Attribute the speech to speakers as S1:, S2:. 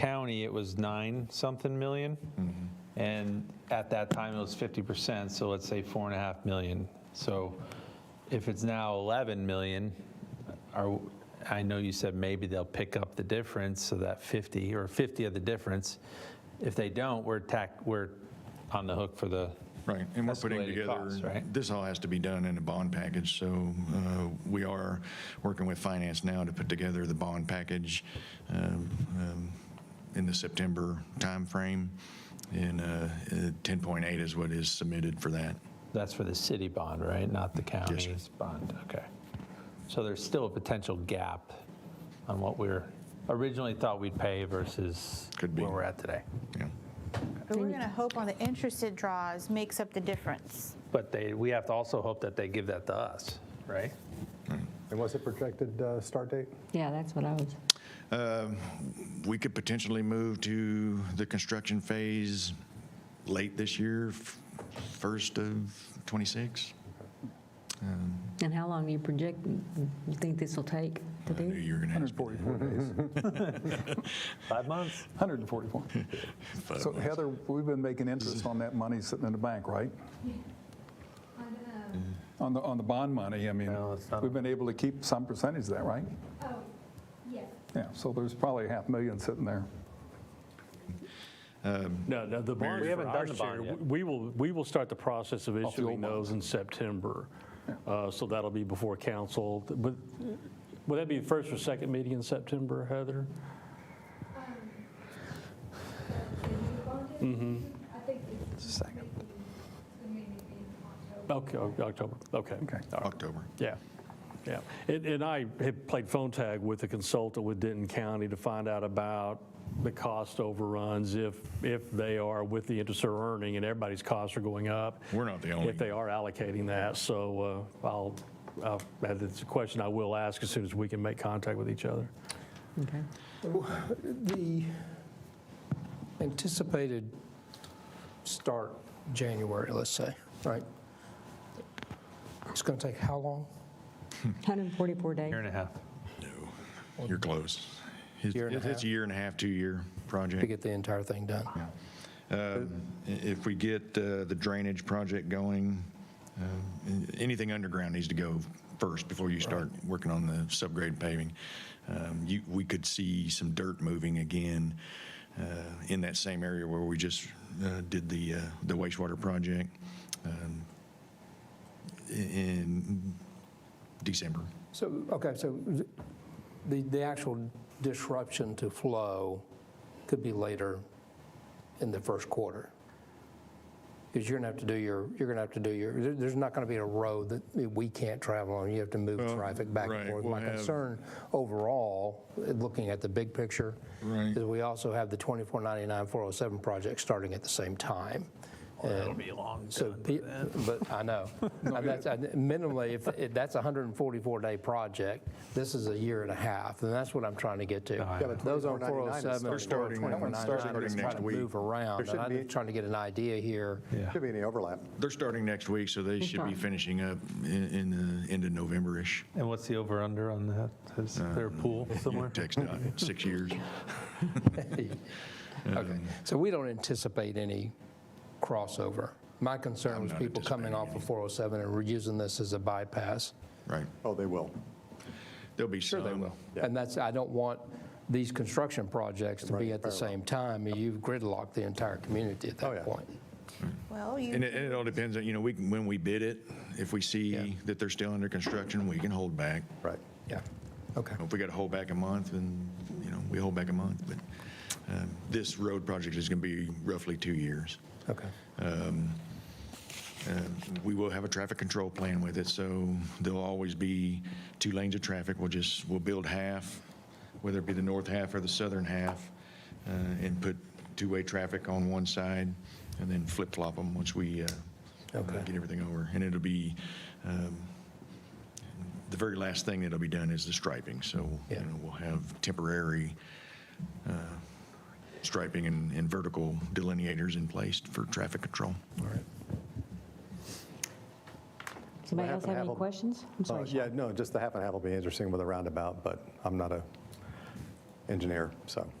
S1: county, it was nine something million. And at that time, it was 50%, so let's say four and a half million. So if it's now 11 million, are, I know you said maybe they'll pick up the difference, so that 50, or 50 of the difference. If they don't, we're tack, we're on the hook for the,
S2: Right, and we're putting
S1: Escalated
S2: together,
S1: costs, right?
S2: this all has to be done in a bond package, so uh, we are working with finance now to put together the bond package um, um, in the September timeframe, and uh, uh, 10.8 is what is submitted for that.
S1: that's for the city bond, right? Not the county's bond, okay. So there's still a potential gap on what we're originally thought we'd pay versus
S2: Could be.
S1: where we're at today.
S2: Yeah.
S3: But we're going to hope on the interested draws makes up the difference.
S1: But they, we have to also hope that they give that to us, right?
S4: And what's the projected uh, start date?
S5: Yeah, that's what I was,
S2: We could potentially move to the construction phase late this year, f- first of '26,
S5: and how long do you project, you think this will take to
S2: I knew
S5: do?
S2: you were going to ask.
S4: 144 days.
S1: Five months?
S4: 144. So Heather, we've been making interest on that money sitting in the bank, right? On the, on the bond money, I mean,
S1: No, it's not.
S4: we've been able to keep some percentage of that, right?
S6: Oh, yes.
S4: Yeah, so there's probably a half million sitting there.
S7: No, no, the bonds
S1: We
S7: for
S1: haven't done
S7: our
S1: the
S7: share,
S1: bond yet.
S7: we will, we will start the process of
S4: the old
S7: issuing those in September. Uh, So that'll be before council. Would would that be the first or second meeting in September, Heather?
S6: I think it's
S1: Second.
S6: the meeting in October.
S7: Okay, o- October, okay.
S4: Okay.
S7: All right.
S2: October.
S7: Yeah, yeah. And, and I had played phone tag with a consultant with Denton County to find out about the cost overruns, if, if they are with the interest they're earning and everybody's costs are going up.
S2: We're not the only-
S7: If they are allocating that, so uh, I'll, I'll- that's a question I will ask as soon as we can make contact with each other.
S5: Okay.
S8: The anticipated start, January, let's say, right? It's going to take how long?
S5: 144 days?
S1: Year and a half.
S2: You're close. It's
S8: Year and a
S2: it's a
S8: half.
S2: year and a half, two-year
S8: to
S2: project.
S8: get the entire thing done.
S2: Um, i- If we get uh, the drainage project going, uh, a- anything underground needs to go first before you start working on the subgrade paving. Um, you- We could see some dirt moving again uh, in that same area where we just uh, did the uh, the wastewater project um, i- in December.
S8: So, okay, so the, the actual disruption to flow could be later in the first quarter. Because you're going to have to do your, you're going to have to do your, there- there's not going to be a road that we can't travel on. You have to move
S2: Well,
S8: traffic back
S2: right,
S8: and forth.
S2: we'll
S8: My
S2: have-
S8: concern overall, looking at the big picture,
S2: Right.
S8: is we also have the 2499, 407 project starting at the same time.
S1: It'll be long.
S8: So, pe- but I know, And that's, and minimally, if, if that's a 144-day project, this is a year and a half, and that's what I'm trying to get to.
S1: Yeah, but
S8: Those oh on
S4: 2499 is
S8: 407,
S2: starting- They're starting-
S8: 2499,
S2: starting
S8: is
S2: next
S8: trying to
S2: week.
S8: move around, and
S4: shouldn't
S8: I'm
S4: be-
S8: just trying to get an idea here.
S1: Yeah.
S4: Should be any overlap.
S2: They're starting next week, so they should be
S5: fine.
S2: finishing up i- in the end of November-ish.
S1: And what's the over-under on that? Is there a pool somewhere?
S2: Text dot, six years.
S8: Okay, so we don't anticipate any crossover. My concern was
S2: not
S8: people coming
S2: anticipating
S8: off of 407 and were using this as a bypass.
S2: Right.
S4: Oh, they will.
S2: There'll be some. Sure they will.
S8: And that's, I don't want these construction projects to be at the same time, and you've gridlocked the entire community at
S4: yeah.
S8: that point.
S3: Well,
S2: And
S3: you,
S2: it, and it all depends on, you know, we can, when we bid it, if we see that they're still under construction, we can hold back.
S4: Right.
S8: Yeah, okay.
S2: If we got to hold back a month, then, you know, we hold back a month. But um, this road project is going to be roughly two years.
S8: Okay.
S2: Uh, We will have a traffic control plan with it, so there'll always be two lanes of traffic. We'll just, we'll build half, whether it be the north half or the southern half, uh, and put two-way traffic on one side, and then flip-flop them once we uh, uh,
S8: Okay.
S2: get everything over. And it'll be, um, the very last thing that'll be done is the striping, so, you
S8: Yeah.
S2: know, we'll have temporary uh, striping and and vertical delineators in place for traffic control.
S5: Somebody
S9: half and
S5: else have
S9: half
S5: any
S9: will-
S5: questions? I'm
S9: Uh,
S5: sorry.
S9: Yeah,
S5: Sean.
S9: no, just the half and half will be interesting with a roundabout, but I'm not a engineer, so.